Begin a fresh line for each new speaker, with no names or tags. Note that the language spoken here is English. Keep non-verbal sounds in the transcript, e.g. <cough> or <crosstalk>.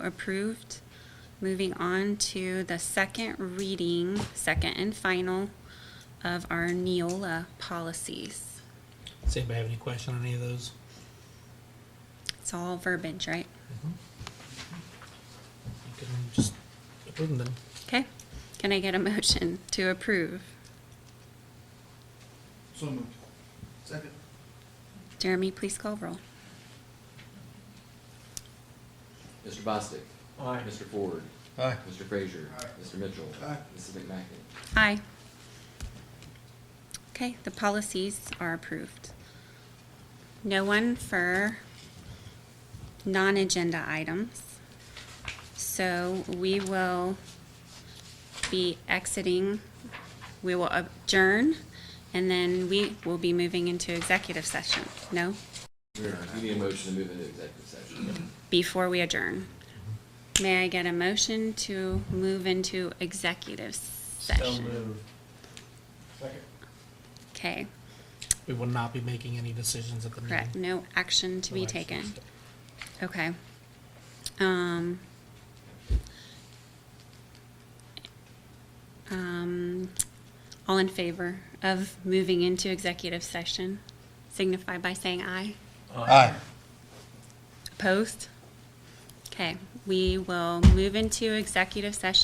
approved. Moving on to the second reading, second and final of our Neola policies.
Does anybody have any question on any of those?
It's all verbiage, right?
You can just approve them then.
Okay. Can I get a motion to approve?
So moved. Second.
Jeremy, please call roll.
Mr. Bostic.
Aye.
Mr. Ford.
Aye.
Mr. Frazier.
Aye.
Mr. Mitchell.
Aye.
Mrs. McMacken.
Aye. Okay, the policies are approved. No one for non-agenda items. So we will be exiting, we will adjourn, and then we will be moving into executive session, no?
We need a motion to move into executive
<clears throat>
session.
Before we adjourn. May I get a motion to move into executive session?
Second.
Okay.
We will not be making any decisions at the meeting.
Correct, no action to be
No action.
taken. Okay. Um. Um, all in favor of moving into executive session signify by saying aye.
Aye.
Opposed? Okay, we will move into executive session.